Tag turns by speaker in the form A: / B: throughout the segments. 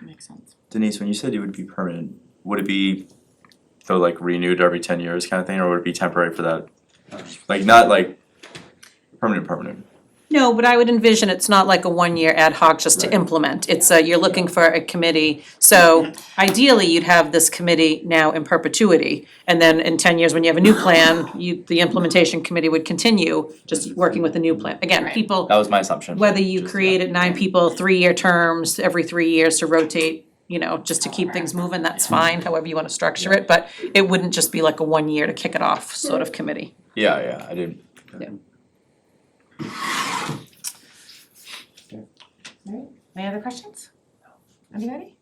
A: makes sense.
B: Denise, when you said it would be permanent, would it be though like renewed every ten years kind of thing, or would it be temporary for that? Like not like permanent, permanent.
C: No, but I would envision it's not like a one-year ad hoc just to
B: Right.
C: implement. It's a, you're looking for a committee. So ideally, you'd have this committee now in perpetuity. And then in ten years, when you have a new plan, you, the implementation committee would continue just working with the new plan. Again,
A: Right.
C: people,
B: That was my assumption.
C: whether you
B: Just, yeah.
C: created nine people, three-year terms, every three years to rotate, you know, just to keep things moving, that's fine, however you wanna structure it. But it wouldn't just be like a one-year to kick it off sort
A: Hmm.
C: of committee.
B: Yeah, yeah, I didn't.
A: Any other questions? Anybody?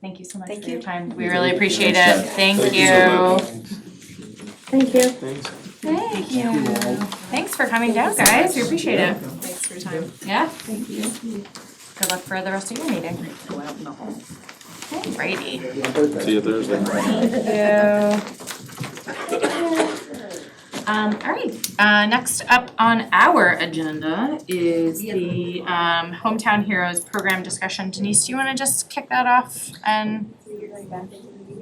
A: Thank you so much
D: Thank
A: for your
D: you.
A: time. We really appreciate it.
B: Thanks,
A: Thank you.
D: Thank you.
A: Thank you. Thanks for coming down, guys. We appreciate it.
D: Thanks for your time.
A: Yeah,
D: Thank you.
A: good luck for the rest of your meeting.
C: Go out in the hall.
A: Alrighty.
E: See you Thursday.
A: Thank you. Um, alright, uh, next up on our agenda is the um Hometown Heroes program discussion. Denise, do you wanna just kick that off and?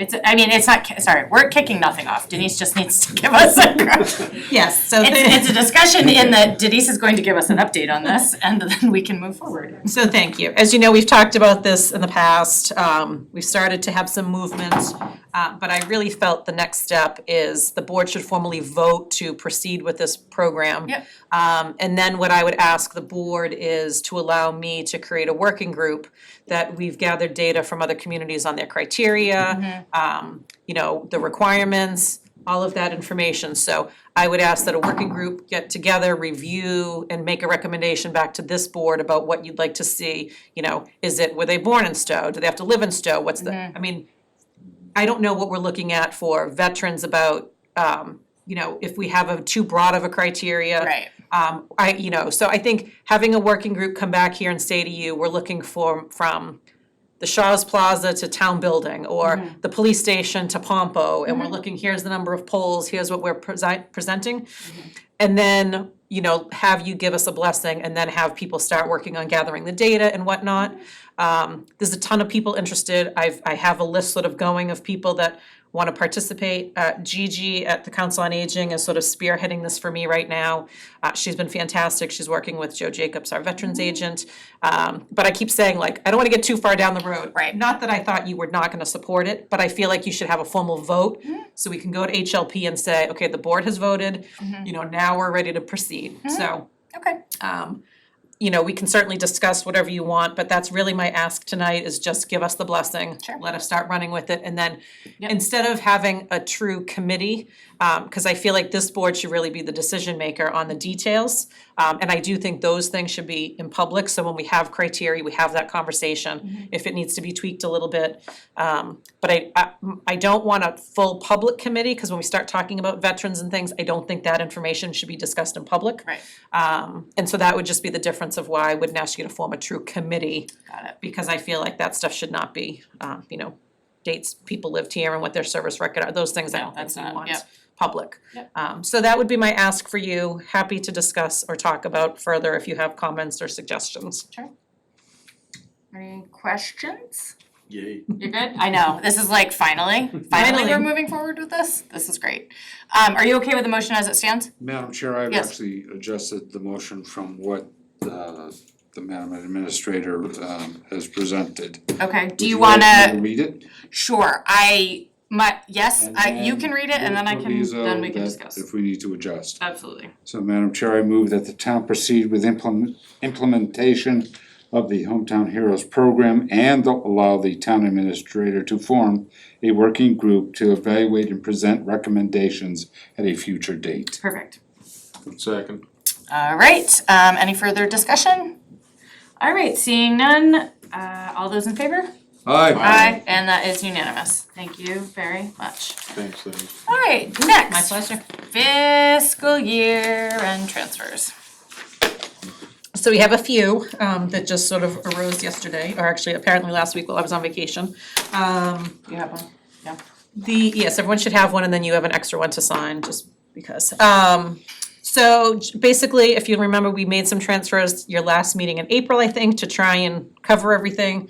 A: It's, I mean, it's not, ki- sorry, we're kicking nothing off. Denise just needs to give us a
C: Yes, so. the-
A: It's, it's a discussion in that Denise is going to give us an update on this and then we can move forward.
C: So thank you. As you know, we've talked about this in the past. Um, we've started to have some movement. uh, but I really felt the next step is the board should formally vote to proceed with this program.
A: Yep.
C: Um, and then what I would ask the board is to allow me to create a working group that we've gathered data from other communities on their criteria, um, you know, the requirements, all of that information. So I would ask that a working group get together, review, and make a recommendation back to this board about what you'd like to see. You know, is it, were they born in Stowe? Do they have to live in Stowe? What's the, I mean, I don't know what we're looking at for veterans about, um, you know, if we have a too broad of a criteria.
A: Right.
C: Um, I, you know, so I think having a working group come back here and say to you, we're looking for, from the Shaw's Plaza to town building, or the police station to Pompo, and we're looking, here's the number of polls, here's what we're presi- presenting. And then, you know, have you give us a blessing, and then have people start working on gathering the data and whatnot. Um, there's a ton of people interested, I've, I have a list sort of going of people that wanna participate. Uh, Gigi at the Council on Aging is sort of spearheading this for me right now. Uh, she's been fantastic, she's working with Joe Jacobs, our veterans agent. Um, but I keep saying like, I don't wanna get too far down the road.
A: Right.
C: Not that I thought you were not gonna support it, but I feel like you should have a formal vote. So we can go to HLP and say, okay, the board has voted, you know, now we're ready to proceed, so.
A: Okay.
C: Um, you know, we can certainly discuss whatever you want, but that's really my ask tonight is just give us the blessing.
A: Sure.
C: Let us start running with it, and then
A: Yep.
C: instead of having a true committee, um, cause I feel like this board should really be the decision maker on the details. Um, and I do think those things should be in public, so when we have criteria, we have that
A: Mm-hmm.
C: conversation, if it needs to be tweaked a little bit. Um, but I, I, I don't want a full public committee, cause when we start talking about veterans and things, I don't think that information should be discussed in public.
A: Right.
C: Um, and so that would just be the difference of why I wouldn't ask you to form a true committee,
A: Got it.
C: because I feel like that stuff should not be, um, you know, dates people lived here and what their service record are, those things I
A: No,
C: don't think
A: that's
C: we
A: not-
C: want
A: yep.
C: public.
A: Yep.
C: Um, so that would be my ask for you, happy to discuss or talk about further if you have comments or suggestions.
A: Any questions?
E: Yay.
A: You're good? I know, this is like finally, finally we're
C: Finally.
A: moving forward with this, this is great. Um, are you okay with the motion as it stands?
F: Madam Chair, I've
A: Yes.
F: actually adjusted the motion from what uh, the Madam Administrator um, has presented.
A: Okay, do
F: Would
A: you
F: like me
A: wanna,
F: Read it?
A: sure, I, my, yes,
F: And
A: I, you
F: then
A: can read it and then I
F: we'll
A: can,
F: proviso
A: then we can
F: that
A: discuss.
F: If we need to adjust.
A: Absolutely.
F: So Madam Chair, I move that the town proceed with implement, implementation of the Hometown Heroes Program and allow the town administrator to form a working group to evaluate and present recommendations at a future date.
A: Perfect.
E: Second.
A: All right, um, any further discussion? All right, seeing none, uh, all those in favor? Aye. And that is unanimous. Thank you very much.
E: Thanks, Denise.
A: All right,
C: My
A: next,
C: pleasure.
A: fiscal year and transfers.
C: So we have a few um, that just sort of arose yesterday, or actually apparently last week while I was on vacation. Um,
A: You have one? Yeah.
C: The, yes, everyone should have one and then you have an extra one to sign just because. Um, so j- basically, if you remember, we made some transfers your last meeting in April, I think, to try and cover everything.